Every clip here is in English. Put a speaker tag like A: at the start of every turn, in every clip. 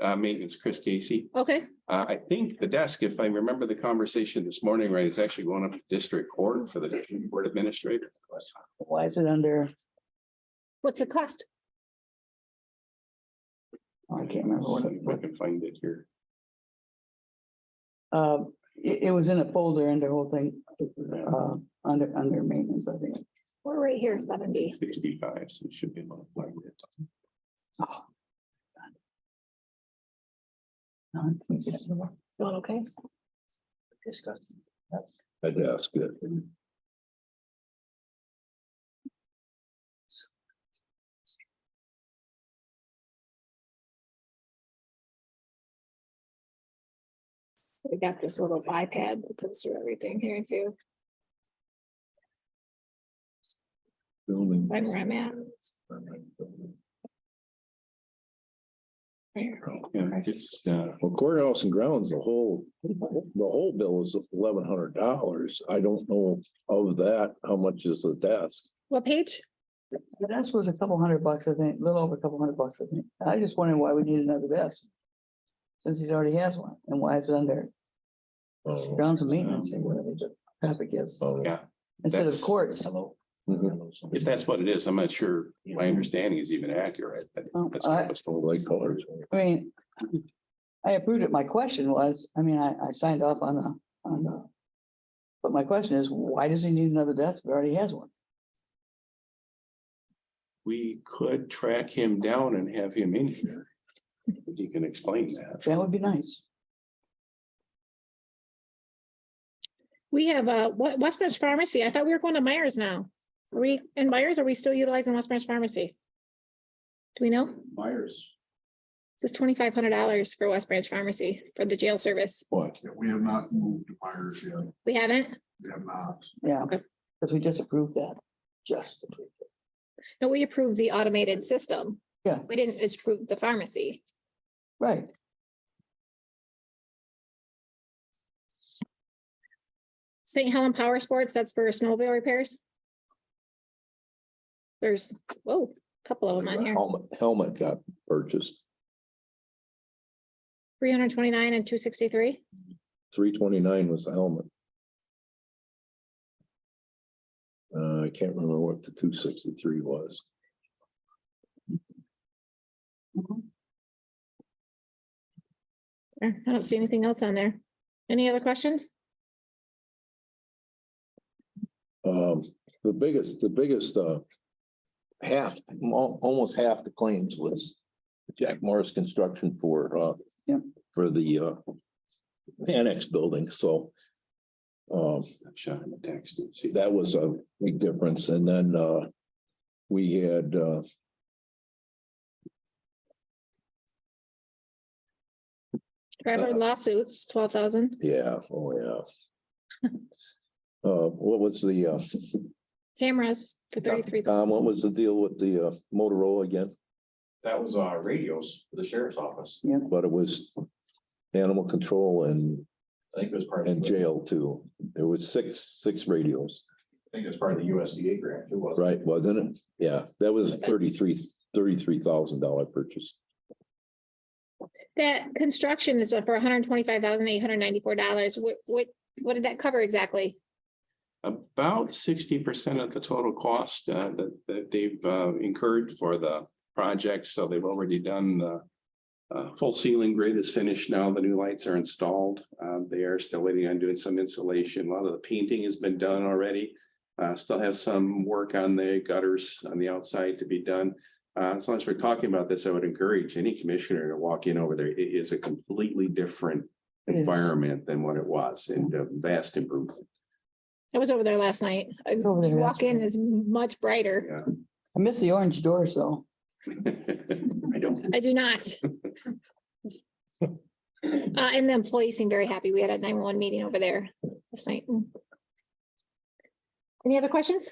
A: uh, maintenance, Chris Casey.
B: Okay,
A: Uh, I think the desk, if I remember the conversation this morning, right, is actually going up to district court for the district court administrator.
C: Why is it under,
B: what's the cost?
C: oh, I can't remember what,
A: If I
C: it-
A: can find it here.
C: uh, it, it was in a folder and the whole thing, uh, under, under maintenance, I think.
B: We're right here, seventy.
A: Sixty-five, so it should be able to find it.
C: Oh. No, I can't get it.
B: Doing Oh, okay?
D: I desk that.
B: We got this little iPad that goes through everything here too,
D: Building.
B: right where I'm at. Here.
A: Yeah, just, uh,
D: Well, courthouse and grounds, the whole, the whole bill is eleven hundred dollars. I don't know of that, how much is the desk?
B: What page?
C: The desk was a couple hundred bucks, I think, a little over a couple hundred bucks, I think. I just wondering why we need another desk. Since he's already has one, and why is it under
D: Oh,
C: grounds and maintenance or whatever the topic is,
D: oh.
A: Yeah.
C: instead of Mm-hmm.
A: That's-
C: courts.
D: Mhm.
A: if that's what it is, I'm not sure my understanding is even accurate. but
C: Oh,
A: That's what I
C: I-
A: was
D: Oh,
A: told.
D: Light colors.
C: I mean, I approved it. My question was, I mean, I, I signed off on the, on the. But my question is, why does he need another desk? He already has one.
A: We could track him down and have him in here. If He can explain that.
C: That would be nice.
B: We have uh, Wa- West Branch Pharmacy. I thought we were going to Myers now. Are we in Myers? Are we still utilizing West Branch Pharmacy? Do we know?
A: Myers.
B: It's twenty-five hundred dollars for West Branch Pharmacy for the jail service.
A: What?
E: Yeah, we have not moved to Myers yet.
B: We haven't?
E: We have not.
C: Yeah,
B: Okay.
C: because we just approved that. Just. approved it.
B: No, we approved the automated system.
C: Yeah.
B: We didn't approve the pharmacy.
C: Right.
B: St. Helen Power Sports, that's for snowmobile repairs. There's, whoa, a couple of them on here,
D: Helmet, helmet got purchased,
B: three hundred twenty-nine and two sixty-three.
D: three twenty-nine was the helmet. Uh, I can't remember what the two sixty-three was.
B: I don't see anything else on there. Any other questions?
D: Um, the biggest, the biggest, uh. Half, al- almost half the claims was Jack Morris Construction for, uh.
C: Yeah.
D: For the, uh. Annex building, so. Um,
A: I'm shot in the text and see.
D: that was a big difference, and then, uh. We had,
C: Uh,
D: uh.
B: Traveler lawsuits, twelve thousand,
D: Yeah, oh, yeah. Uh, what was the, uh,
B: cameras for thirty-three.
D: Tom, what was the deal with the uh, Motorola again?
F: That was uh radios for the sheriff's office.
D: But it was animal control and,
F: I think it was part of.
D: and
F: the-
D: jail too. There was six, six radios,
F: I think it was part of the USDA grant, it was.
D: right, wasn't it? Yeah, that was a thirty-three, thirty-three thousand dollar purchase.
B: That construction is up for one hundred twenty-five thousand eight hundred ninety-four dollars. What, what, what did that cover exactly?
A: About sixty percent of the total cost uh, that, that they've uh, incurred for the project, so they've already done the uh, full ceiling grid is finished now, the new lights are installed. Uh, They are still waiting on doing some insulation. A lot of the painting has been done already. Uh, Still have some work on the gutters on the outside to be done. Uh, As long as we're talking about this, I would encourage any commissioner to walk in over there. It is a completely different
C: It is.
A: environment than what it was and a vast improvement.
B: I was over there last night. I-
C: Over there
B: You walk
C: yesterday.
B: in is much brighter.
C: I miss the orange doors though.
A: I don't.
B: I do not. Uh, and the employees seem very happy. We had a nine-one-one meeting over there last night. Mm. Any other questions?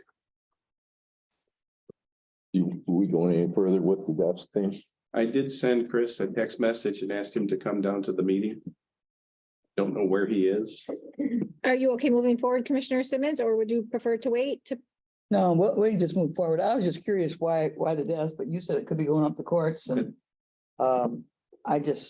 D: You, we going any further with the desk thing?
A: I did send Chris a text message and asked him to come down to the meeting. Don't know where he is.
B: Are you okay moving forward, Commissioner Simmons, or would you prefer to wait to,
C: No, we, we just moved forward. I was just curious why, why the desk, but you said it could be going up the courts and. Um, I just